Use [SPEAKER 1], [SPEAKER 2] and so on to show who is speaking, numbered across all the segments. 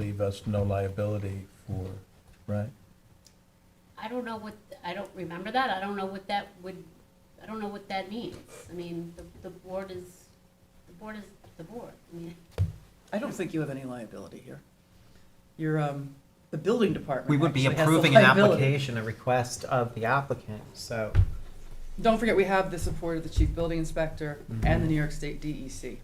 [SPEAKER 1] leave us no liability for, right?
[SPEAKER 2] I don't know what, I don't remember that, I don't know what that would, I don't know what that means. I mean, the, the board is, the board is the board, I mean,
[SPEAKER 3] I don't think you have any liability here. You're, um, the building department.
[SPEAKER 4] We would be
[SPEAKER 3] actually has the
[SPEAKER 4] approving an
[SPEAKER 3] liability.
[SPEAKER 4] application, a request of the applicant, so.
[SPEAKER 3] Don't forget, we have the support of the chief building inspector
[SPEAKER 4] Mm-hmm.
[SPEAKER 3] and the New York State E DEC.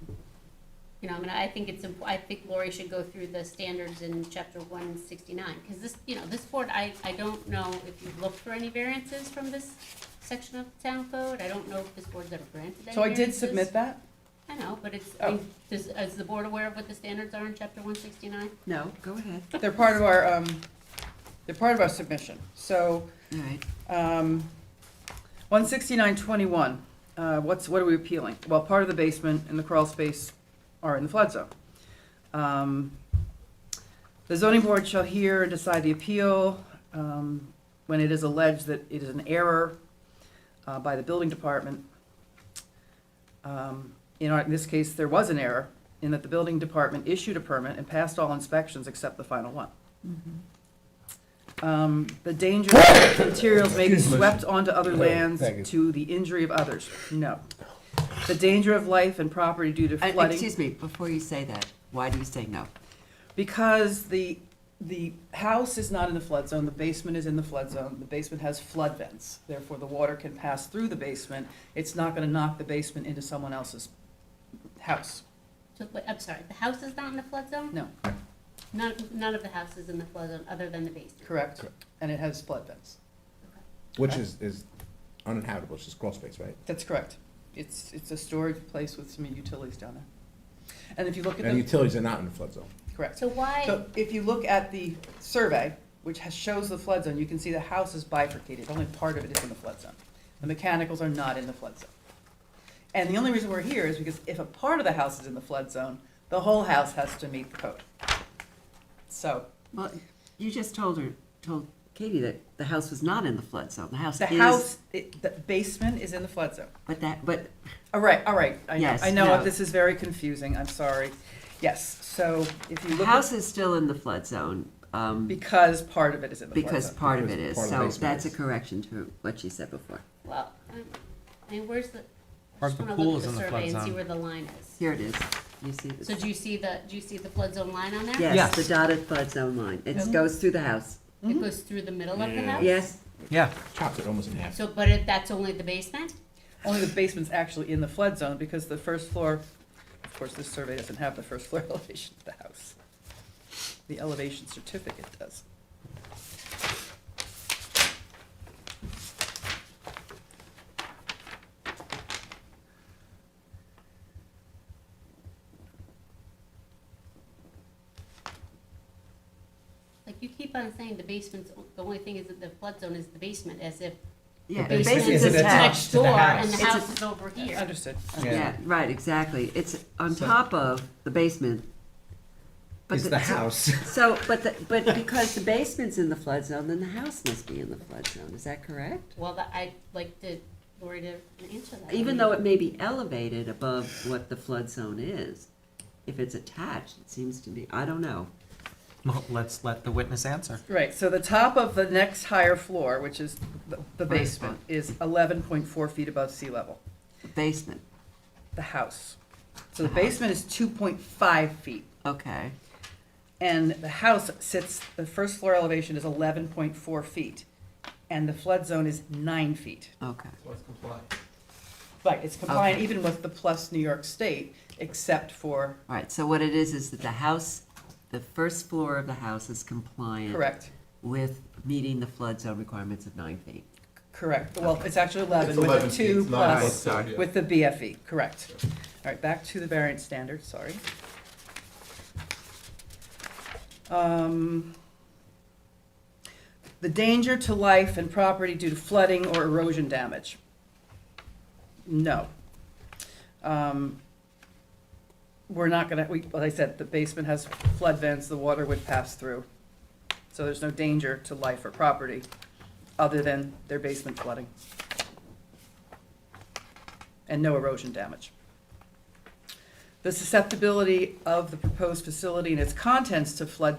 [SPEAKER 2] you know, I mean, I think it's, imp- I think Lori should go through the standards in chapter one sixty-nine, because this, you know, this board, I, I don't know if you've looked for any variances from this section of the town code, I don't know if this board's ever granted any
[SPEAKER 3] So I did
[SPEAKER 2] variances.
[SPEAKER 3] submit that?
[SPEAKER 2] I know, but it's,
[SPEAKER 3] Oh.
[SPEAKER 2] is, is the board aware of what the standards are in chapter one sixty-nine?
[SPEAKER 5] No, go ahead,
[SPEAKER 3] They're part of our, um, they're part of our submission. So,
[SPEAKER 5] all right.
[SPEAKER 3] um, one sixty-nine twenty-one, uh, what's, what are we appealing? Well, part of the basement and the crawl space are in the flood zone. Um, The zoning board shall hear and decide the appeal, um, when it is alleged that it is an error, uh, by the building department. Um, in our, in this case, there was an error in that the building department issued a permit and passed all inspections except the final one. Um, the dangerous materials may be swept onto other lands to the injury of others, no. The danger of life and property due to
[SPEAKER 5] Uh,
[SPEAKER 3] flooding.
[SPEAKER 5] Excuse me, before you say that, why do you say no?
[SPEAKER 3] Because the, the house is not in the flood zone, the basement is in the flood zone, the basement has flood vents. Therefore, the water can pass through the basement, it's not gonna knock the basement into someone else's house.
[SPEAKER 2] So, wait, I'm sorry, the house is not in the flood zone?
[SPEAKER 3] No.
[SPEAKER 2] None, none of the houses in the flood zone, other than the basement?
[SPEAKER 3] Correct. And it has flood vents.
[SPEAKER 6] Which is, is uninhabitable, it's just crawl space, right?
[SPEAKER 3] That's correct. It's, it's a storage place with some utilities down there. And if you look at
[SPEAKER 6] And
[SPEAKER 3] the,
[SPEAKER 6] utilities are not in the flood zone.
[SPEAKER 3] correct.
[SPEAKER 2] So why,
[SPEAKER 3] So if you look at the survey, which has, shows the flood zone, you can see the house is bifurcated, only part of it is in the flood zone. The mechanicals are not in the flood zone. And the only reason we're here is because if a part of the house is in the flood zone, the whole house has to meet the code. So,
[SPEAKER 5] Well, you just told her, told Katie that the house was not in the flood zone, the house
[SPEAKER 3] the
[SPEAKER 5] is,
[SPEAKER 3] house, it- the basement is in the flood zone.
[SPEAKER 5] but that, but,
[SPEAKER 3] All right, all right, I know,
[SPEAKER 5] Yes,
[SPEAKER 3] I know,
[SPEAKER 5] no.
[SPEAKER 3] this is very confusing, I'm sorry. Yes, so if you
[SPEAKER 5] the
[SPEAKER 3] look,
[SPEAKER 5] house
[SPEAKER 3] at-
[SPEAKER 5] is still in the flood zone, um,
[SPEAKER 3] because part of it is in the flood zone.
[SPEAKER 5] because part of it is,
[SPEAKER 6] Because part of
[SPEAKER 5] so
[SPEAKER 6] the basement
[SPEAKER 5] that's a
[SPEAKER 6] is.
[SPEAKER 5] correction to what she said before.
[SPEAKER 2] well, um, I mean, where's the, I
[SPEAKER 4] Or
[SPEAKER 2] just
[SPEAKER 4] the
[SPEAKER 2] wanna
[SPEAKER 4] pool
[SPEAKER 2] look
[SPEAKER 4] is
[SPEAKER 2] at
[SPEAKER 4] in
[SPEAKER 2] the
[SPEAKER 4] the
[SPEAKER 2] survey
[SPEAKER 4] flood
[SPEAKER 2] and see
[SPEAKER 4] zone.
[SPEAKER 2] where the line is.
[SPEAKER 5] Here it is, you see
[SPEAKER 2] So
[SPEAKER 5] this?
[SPEAKER 2] do you see the, do you see the flood zone line on that?
[SPEAKER 5] Yes,
[SPEAKER 4] Yes.
[SPEAKER 5] the dotted flood zone line, it goes through the house,
[SPEAKER 2] It goes through the middle of the house?
[SPEAKER 5] yes?
[SPEAKER 4] Yeah,
[SPEAKER 6] Chopped it almost in half.
[SPEAKER 2] So, but if that's only the basement?
[SPEAKER 3] Only the basement's actually in the flood zone because the first floor, of course, this survey doesn't have the first floor elevation of the house. The elevation certificate does.
[SPEAKER 2] Like, you keep on saying the basement's, o- the only thing is that the flood zone is the basement, as if
[SPEAKER 5] Yeah, the
[SPEAKER 2] the
[SPEAKER 6] basement
[SPEAKER 2] basement is
[SPEAKER 5] basement's
[SPEAKER 6] isn't
[SPEAKER 5] attached.
[SPEAKER 2] next
[SPEAKER 4] attached to the
[SPEAKER 2] door and
[SPEAKER 4] house.
[SPEAKER 2] the
[SPEAKER 5] It's
[SPEAKER 2] house is over here.
[SPEAKER 3] Understood.
[SPEAKER 5] Yeah, right, exactly, it's on
[SPEAKER 3] So-
[SPEAKER 5] top of the basement. But
[SPEAKER 6] It's the house.
[SPEAKER 5] So, but the, but because the basement's in the flood zone, then the house must be in the flood zone, is that correct?
[SPEAKER 2] Well, that- I'd like to, Lori to answer that.
[SPEAKER 5] Even though it may be elevated above what the flood zone is, if it's attached, it seems to be, I don't know.
[SPEAKER 4] well, let's let the witness answer.
[SPEAKER 3] Right, so the top of the next higher floor, which is the- the
[SPEAKER 5] First
[SPEAKER 3] basement, is eleven point four feet above sea level,
[SPEAKER 5] Basement,
[SPEAKER 3] the house. So the basement is two point five feet
[SPEAKER 5] okay,
[SPEAKER 3] and the house sits, the first floor elevation is eleven point four feet. And the flood zone is nine feet.
[SPEAKER 5] okay.
[SPEAKER 3] Right, it's compliant
[SPEAKER 5] Okay.
[SPEAKER 3] even with the plus New York State, except for,
[SPEAKER 5] All right, so what it is, is that the house, the first floor of the house is compliant.
[SPEAKER 3] correct,
[SPEAKER 5] With meeting the flood zone requirements of nine feet.
[SPEAKER 3] correct, well, it's actually eleven,
[SPEAKER 6] It's
[SPEAKER 3] with
[SPEAKER 6] 11
[SPEAKER 3] the two
[SPEAKER 6] feet, not
[SPEAKER 3] plus,
[SPEAKER 6] outside, yeah.
[SPEAKER 3] with the BFE, correct. All right, back to the variance standard, sorry. Um, The danger to life and property due to flooding or erosion damage. No. Um, We're not gonna, we, like I said, the basement has flood vents, the water would pass through. So there's no danger to life or property, other than their basement flooding. And no erosion damage. The susceptibility of the proposed facility and its contents to flood